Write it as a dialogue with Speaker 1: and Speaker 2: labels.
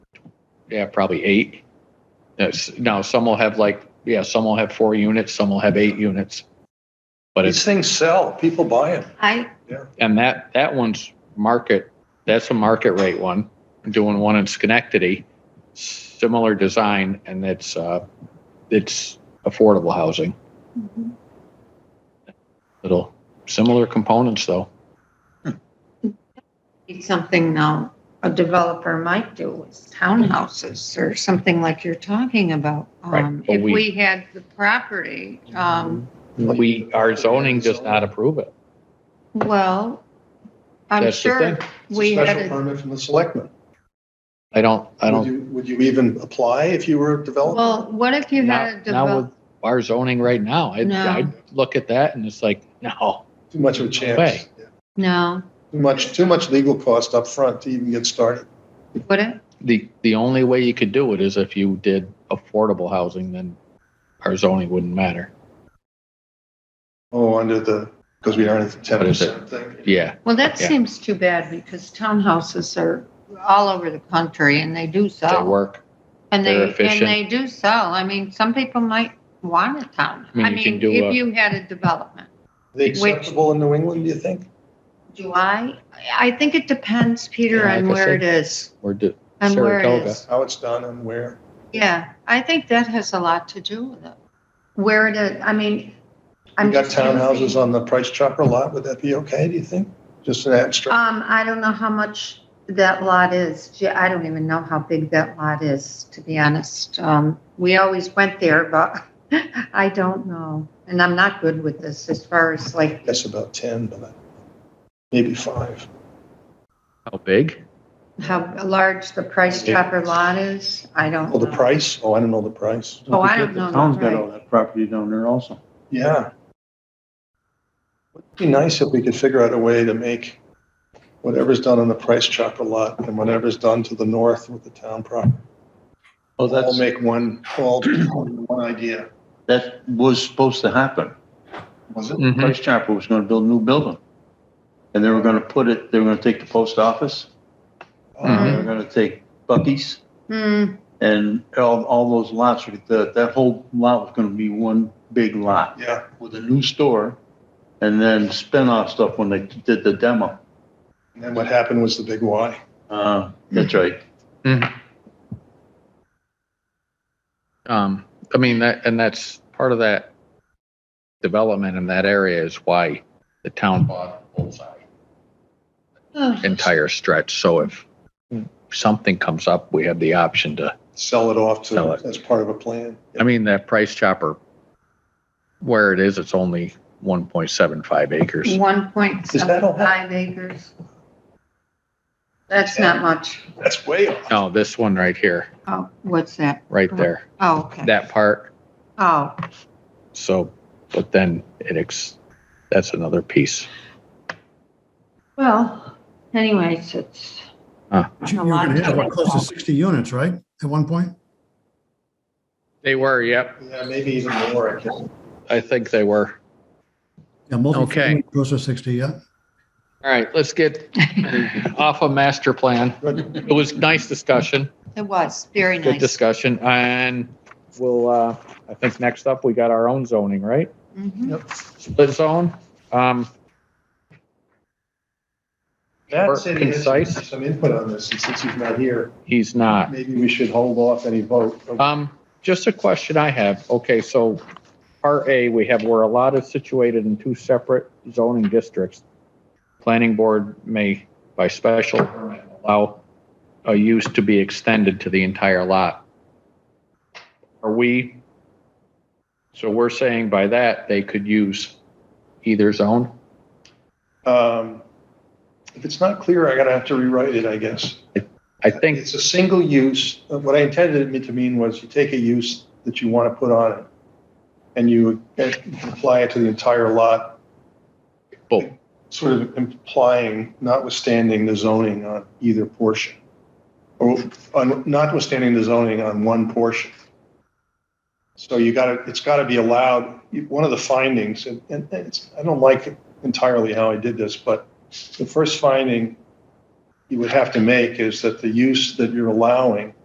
Speaker 1: yeah, probably eight. That's, now, some will have like, yeah, some will have four units, some will have eight units. But
Speaker 2: These
Speaker 1: it's,
Speaker 2: things sell, people buy them.
Speaker 3: I,
Speaker 1: and that, that one's market, that's a market rate one, doing one in Schenectady, similar design, and it's, uh, it's affordable housing. Little, similar components though.
Speaker 3: it's something now a developer might do is townhouses or something like you're talking about.
Speaker 1: Mm-hmm. Right,
Speaker 3: Um,
Speaker 1: but
Speaker 3: If
Speaker 1: we- Mm-hmm.
Speaker 3: we had the property, um,
Speaker 1: We, our zoning does not approve it.
Speaker 3: well, I'm
Speaker 1: That's the
Speaker 3: sure
Speaker 1: thing.
Speaker 2: It's a
Speaker 3: we had
Speaker 2: Special
Speaker 3: a,
Speaker 2: permit from the selectmen.
Speaker 1: I don't, I
Speaker 2: Would
Speaker 1: don't,
Speaker 2: you, would you even apply if you were a developer?
Speaker 3: well, what if you
Speaker 1: now,
Speaker 3: had a
Speaker 1: now with
Speaker 3: developer?
Speaker 1: our zoning right now, I'd,
Speaker 3: No.
Speaker 1: I'd look at that and it's like, no.
Speaker 2: Too much of a chance.
Speaker 1: way.
Speaker 2: Yeah.
Speaker 3: No,
Speaker 2: Too much, too much legal cost up front to even get started.
Speaker 3: would it?
Speaker 1: The, the only way you could do it is if you did affordable housing, then our zoning wouldn't matter.
Speaker 2: Oh, under the, because we aren't at the ten
Speaker 1: What is it?
Speaker 2: percent thing.
Speaker 1: Yeah,
Speaker 3: Well, that
Speaker 1: Yeah.
Speaker 3: seems too bad because townhouses are all over the country and they do
Speaker 1: they
Speaker 3: sell.
Speaker 1: work.
Speaker 3: And
Speaker 1: they're
Speaker 3: they, and
Speaker 1: efficient.
Speaker 3: they do sell. I mean, some people might want a town.
Speaker 1: I mean,
Speaker 3: I
Speaker 1: you can
Speaker 3: mean,
Speaker 1: do a-
Speaker 3: if you had a development.
Speaker 2: Are they
Speaker 3: Which-
Speaker 2: acceptable in New England, do you think?
Speaker 3: Do I? I think it depends, Peter,
Speaker 1: Yeah, like
Speaker 3: on
Speaker 1: I
Speaker 3: where it
Speaker 1: said,
Speaker 3: is.
Speaker 1: Or do,
Speaker 3: On where it
Speaker 1: Saratoga.
Speaker 3: is.
Speaker 2: How it's done and where?
Speaker 3: Yeah, I think that has a lot to do with it. Where it is, I mean,
Speaker 2: We
Speaker 3: I'm
Speaker 2: got
Speaker 3: just.
Speaker 2: townhouses
Speaker 3: using-
Speaker 2: on the Price Chopper lot, would that be okay, do you think? Just an abstract,
Speaker 3: Um, I don't know how much that lot is. Gee, I don't even know how big that lot is, to be honest. Um, we always went there, but I don't know. And I'm not good with this as far as
Speaker 2: I
Speaker 3: like,
Speaker 2: guess about ten, but maybe five.
Speaker 1: how big?
Speaker 3: how large the price chopper lot is. I don't know.
Speaker 2: Oh, the price? Oh, I don't know the price.
Speaker 3: Oh, I don't know the
Speaker 4: The town's got
Speaker 3: price.
Speaker 4: all that property down there also.
Speaker 2: Yeah. It'd be nice if we could figure out a way to make whatever's done on the Price Chopper lot and whatever's done to the north with the town property. All
Speaker 4: Well, that's,
Speaker 2: make one, all one idea,
Speaker 4: that was supposed to happen.
Speaker 2: was it?
Speaker 1: Mm-hmm.
Speaker 4: Price Chopper was gonna build a new building. And they were gonna put it, they were gonna take the post office, they
Speaker 2: Uh,
Speaker 4: were gonna take Bucky's,
Speaker 3: Hmm,
Speaker 4: and all, all those lots, that, that whole lot was gonna be one big lot
Speaker 2: Yeah,
Speaker 4: with a new store, and then spin-off stuff when they did the demo.
Speaker 2: and then what happened was the big Y.
Speaker 4: Uh, that's right.
Speaker 1: Um, I mean, that, and that's part of that development in that area is why the town bought Bullseye. entire stretch. So if something comes up, we have the option to,
Speaker 2: Sell it off
Speaker 1: Sell it.
Speaker 2: to, as part of a plan.
Speaker 1: I mean, that price chopper, where it is, it's only 1.75 acres.
Speaker 3: one point
Speaker 2: Is that all?
Speaker 3: seven five acres. That's not much.
Speaker 2: That's way off.
Speaker 1: No, this one right here,
Speaker 3: Oh, what's that?
Speaker 1: right there,
Speaker 3: Oh, okay.
Speaker 1: that part.
Speaker 3: Oh,
Speaker 1: So, but then it, ex that's another piece.
Speaker 3: well, anyways, it's.
Speaker 1: Huh.
Speaker 3: a
Speaker 5: You were
Speaker 3: lot
Speaker 5: gonna have
Speaker 3: to-
Speaker 5: what, close to 60 units, right, at one point?
Speaker 1: They were, yep.
Speaker 2: Yeah, maybe even more, I guess.
Speaker 1: I think they were.
Speaker 5: Yeah,
Speaker 1: Okay.
Speaker 5: multi Close to 60, yeah.
Speaker 1: All right, let's get off of master plan.
Speaker 2: Good.
Speaker 1: It was nice discussion.
Speaker 3: It was very
Speaker 1: Good
Speaker 3: nice.
Speaker 1: discussion, and we'll, uh, I think next up, we got our own zoning, right?
Speaker 3: Mhm.
Speaker 1: Split zone, um,
Speaker 2: Matt
Speaker 1: Or
Speaker 2: said he has
Speaker 1: concise.
Speaker 2: some input on this, and since he's not here,
Speaker 1: he's not.
Speaker 2: maybe we should hold off any vote.
Speaker 1: Um, just a question I have, okay, so part A, we have where a lot is situated in two separate zoning districts. Planning board may, by special permit, allow a use to be extended to the entire lot. Are we, so we're saying by that, they could use either zone?
Speaker 2: Um, If it's not clear, I gotta have to rewrite it, I guess.
Speaker 1: I think,
Speaker 2: It's a single use, Uh, what I intended it to mean was you take a use that you want to put on it, and you uh, apply it to the entire lot,
Speaker 1: boom,
Speaker 2: sort of implying notwithstanding the zoning on either portion, or on- notwithstanding the zoning on one portion. So you gotta, it's gotta be allowed, You- one of the findings, and and it's, I don't like entirely how I did this, but the first finding you would have to make is that the use that you're allowing